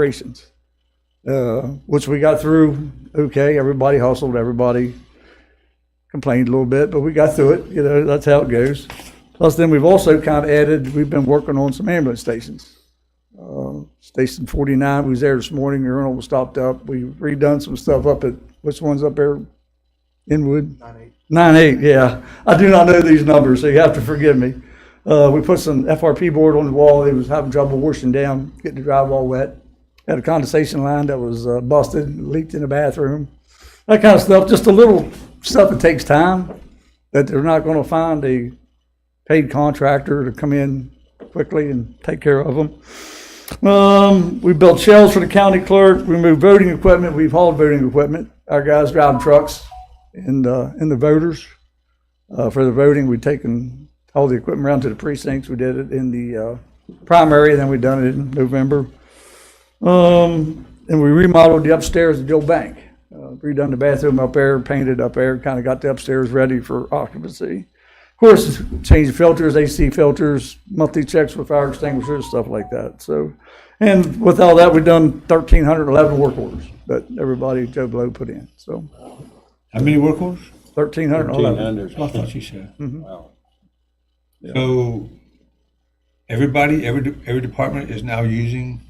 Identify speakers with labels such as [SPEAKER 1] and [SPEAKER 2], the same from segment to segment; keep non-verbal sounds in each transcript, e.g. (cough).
[SPEAKER 1] operations, uh, which we got through. Okay, everybody hustled, everybody complained a little bit, but we got through it. You know, that's how it goes. Plus, then we've also kind of added, we've been working on some ambulance stations. Uh, Station 49, we was there this morning, urinal was stopped up. We redone some stuff up at, which one's up there? Inwood? Nine eight, yeah. I do not know these numbers, so you have to forgive me. Uh, we put some FRP board on the wall. It was having trouble washing down, getting the drywall wet. Had a condensation line that was uh, busted, leaked in the bathroom. That kind of stuff, just a little stuff that takes time that they're not going to find a paid contractor to come in quickly and take care of them. Um, we built shelves for the county clerk. We moved voting equipment. We've hauled voting equipment. Our guys driving trucks and, uh, and the voters. Uh, for the voting, we taken all the equipment around to the precincts. We did it in the, uh, primary, then we done it in November. Um, and we remodeled the upstairs at the old bank. Uh, redone the bathroom up there, painted up there, kinda got the upstairs ready for occupancy. Of course, changed filters, AC filters, monthly checks with fire extinguishers, stuff like that, so. And with all that, we've done thirteen hundred eleven work orders that everybody Joe Blow put in, so
[SPEAKER 2] How many work orders?
[SPEAKER 1] thirteen hundred eleven.
[SPEAKER 2] That's what I thought you said.
[SPEAKER 1] Mm-hmm.
[SPEAKER 2] So everybody, every, de- every department is now using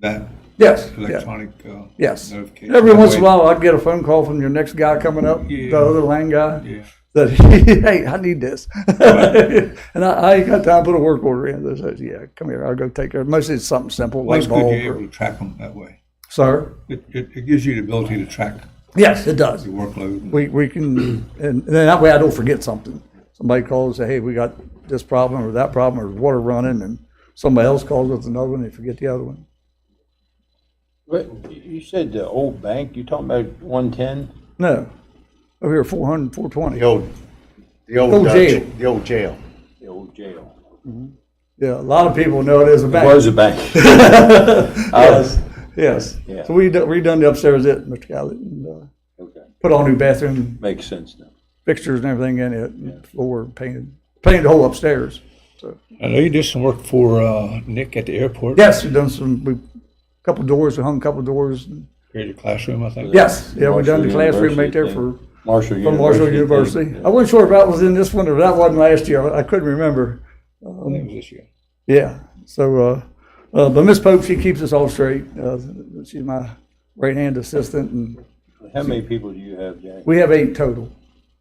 [SPEAKER 2] that
[SPEAKER 1] Yes, yeah,
[SPEAKER 2] electronic uh,
[SPEAKER 1] yes.
[SPEAKER 2] notification?
[SPEAKER 1] Every once in a while, I'd get a phone call from your next guy coming up, the
[SPEAKER 2] Yeah.
[SPEAKER 1] other lane guy,
[SPEAKER 2] Yeah.
[SPEAKER 1] that, (laughs) hey, I need this. (laughs) And I, I ain't got time to put a work order in, they says, yeah, come here, I'll go take care, of it." mostly it's something simple,
[SPEAKER 2] Well,
[SPEAKER 1] like
[SPEAKER 2] it's good
[SPEAKER 1] bulb.
[SPEAKER 2] you're able
[SPEAKER 1] or-
[SPEAKER 2] to track them that way.
[SPEAKER 1] Sir?
[SPEAKER 2] It, it, it gives you the ability to track
[SPEAKER 1] Yes, it does.
[SPEAKER 2] your workload.
[SPEAKER 1] we, we can, and then that way I don't forget something. Somebody calls, say, hey, we got this problem or that problem or water running, and somebody else calls with another one, they forget the other one.
[SPEAKER 3] But you you said the old bank, you talking about one ten?
[SPEAKER 1] No, over here, four hundred, four twenty.
[SPEAKER 4] The old, the old,
[SPEAKER 1] Old
[SPEAKER 4] uh,
[SPEAKER 1] jail.
[SPEAKER 4] The old jail.
[SPEAKER 3] The old jail.
[SPEAKER 1] Yeah, a lot of people know it as a
[SPEAKER 3] It
[SPEAKER 1] bank.
[SPEAKER 3] was a bank.
[SPEAKER 1] (laughs) Yes, yes.
[SPEAKER 3] Yeah.
[SPEAKER 1] So we done- redone the upstairs, it, Mr. Callett, and, uh,
[SPEAKER 3] Okay,
[SPEAKER 1] put all new bathroom
[SPEAKER 3] Makes sense now.
[SPEAKER 1] fixtures and everything in it, and floor painted, painted the whole upstairs. So,
[SPEAKER 2] I know you did some work for uh, Nick at the airport.
[SPEAKER 1] yes, we done some, we, couple doors, we hung a couple doors. and-
[SPEAKER 2] Created a classroom, I think.
[SPEAKER 1] Yes, yeah, we done the
[SPEAKER 3] Marshall
[SPEAKER 1] classroom right
[SPEAKER 3] University
[SPEAKER 1] there
[SPEAKER 3] thing.
[SPEAKER 1] for
[SPEAKER 3] Marshall University.
[SPEAKER 1] From Marshall
[SPEAKER 3] thing.
[SPEAKER 1] University.
[SPEAKER 3] Yeah.
[SPEAKER 1] I wasn't sure if that was in this one or that wasn't last year. I couldn't remember.
[SPEAKER 2] I think it was this year.
[SPEAKER 1] Yeah. So, uh, uh, but Miss Pope, she keeps us all straight. Uh, she's my right hand assistant and
[SPEAKER 3] How many people do you have, Jack,
[SPEAKER 1] we have eight total.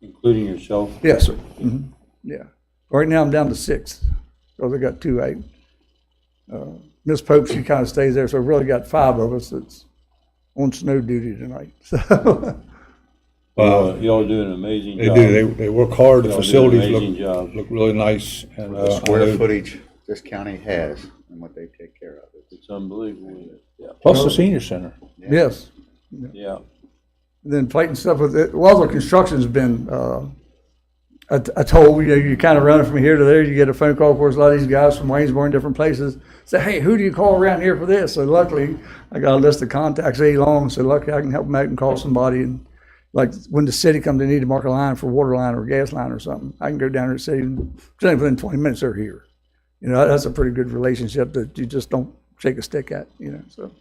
[SPEAKER 3] including yourself?
[SPEAKER 1] Yes, sir. hmm Yeah. Right now I'm down to six. So I got two eight. Uh, Miss Pope, she kind of stays there. So we really got five of us that's on snow duty tonight. (laughs) So,
[SPEAKER 2] Wow,
[SPEAKER 3] Uh, Y'all- Y'all do an amazing
[SPEAKER 2] they
[SPEAKER 3] job.
[SPEAKER 2] do. They, they work hard. The
[SPEAKER 3] Y'all do an
[SPEAKER 2] facilities
[SPEAKER 3] Amazing
[SPEAKER 2] look,
[SPEAKER 3] job.
[SPEAKER 2] look really nice. And,
[SPEAKER 4] The
[SPEAKER 2] uh, I
[SPEAKER 4] square
[SPEAKER 2] know-
[SPEAKER 4] footage this county has and what they take care of. It's-
[SPEAKER 3] It's unbelievable. Yeah,
[SPEAKER 2] Plus the senior center.
[SPEAKER 1] yes.
[SPEAKER 3] yeah.
[SPEAKER 1] then fighting stuff with it. Well, the construction's been uh, a, a toll. You know, you're kind of running from here to there. You get a phone call. Of course, a lot of these guys from Waynesboro and different places say, "Hey, who do you call around here for this?" So luckily, I got a list of contacts A long. So luckily, I can help them out and call somebody. And like when the city comes, they need to mark a line for water line or gas line or something. I can go down to the city and within 20 minutes they're here. You know, that's a pretty good relationship that you just don't shake a stick at. You know, so.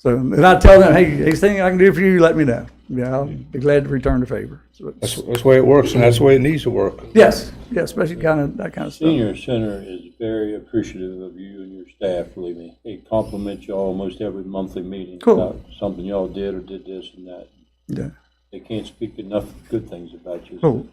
[SPEAKER 1] So, and I tell them, hey, anything I can do for you, let me know. Yeah, I'll be glad to return the favor. So it's-
[SPEAKER 2] That's, that's the way it works, and that's the way it needs to work.
[SPEAKER 1] yes, yeah, especially kind of that kind of stuff.
[SPEAKER 3] Senior Center is very appreciative of you and your staff, believe me. They compliment you almost every monthly meeting
[SPEAKER 1] Cool.
[SPEAKER 3] about something y'all did or did this and that.
[SPEAKER 1] Yeah,
[SPEAKER 3] They can't speak enough good things about you.
[SPEAKER 1] cool.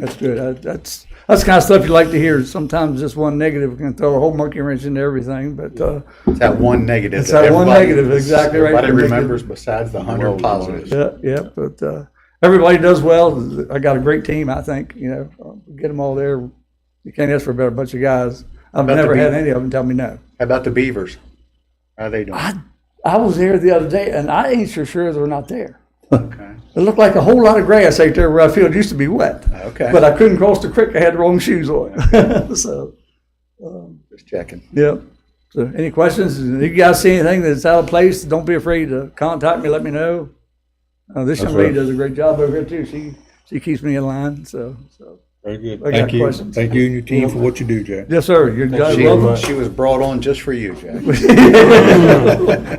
[SPEAKER 1] That's good. I, that's that's the kind of stuff you like to hear. Sometimes just one negative can throw a whole monkey wrench into everything. But uh,
[SPEAKER 4] It's that one negative.
[SPEAKER 1] It's that one
[SPEAKER 4] everybody-
[SPEAKER 1] negative, exactly right.
[SPEAKER 4] Everybody remembers besides the hundred positives.
[SPEAKER 1] yeah, yeah. But uh, everybody does well. I got a great team. I think you know, uh, get them all there. You can't ask for a better bunch of guys. I've
[SPEAKER 4] About to
[SPEAKER 1] never
[SPEAKER 4] be-
[SPEAKER 1] had any of them tell me no.
[SPEAKER 4] How about the Beavers? How they doing?
[SPEAKER 1] I, I was there the other day, and I ain't sure sure they're not there.
[SPEAKER 4] Okay.
[SPEAKER 1] It looked like a whole lot of grass out there where I feel it used to be wet.
[SPEAKER 4] Okay.
[SPEAKER 1] But I couldn't cross the creek. I had the wrong shoes on. (laughs) so,
[SPEAKER 4] Just checking.
[SPEAKER 1] yeah. So, any questions? If you guys see anything that's out of place, don't be afraid to contact me. Let me know. Uh, this young lady does a great job over here too. She she keeps me in line. So, so
[SPEAKER 2] Very good.
[SPEAKER 1] I got
[SPEAKER 2] Thank you.
[SPEAKER 1] questions.
[SPEAKER 2] Thank you and your team for what you do, Jack.
[SPEAKER 1] Yes, sir. You're
[SPEAKER 4] She
[SPEAKER 1] welcome. (laughs)
[SPEAKER 4] was- she was brought on just for you, Jack. (laughs)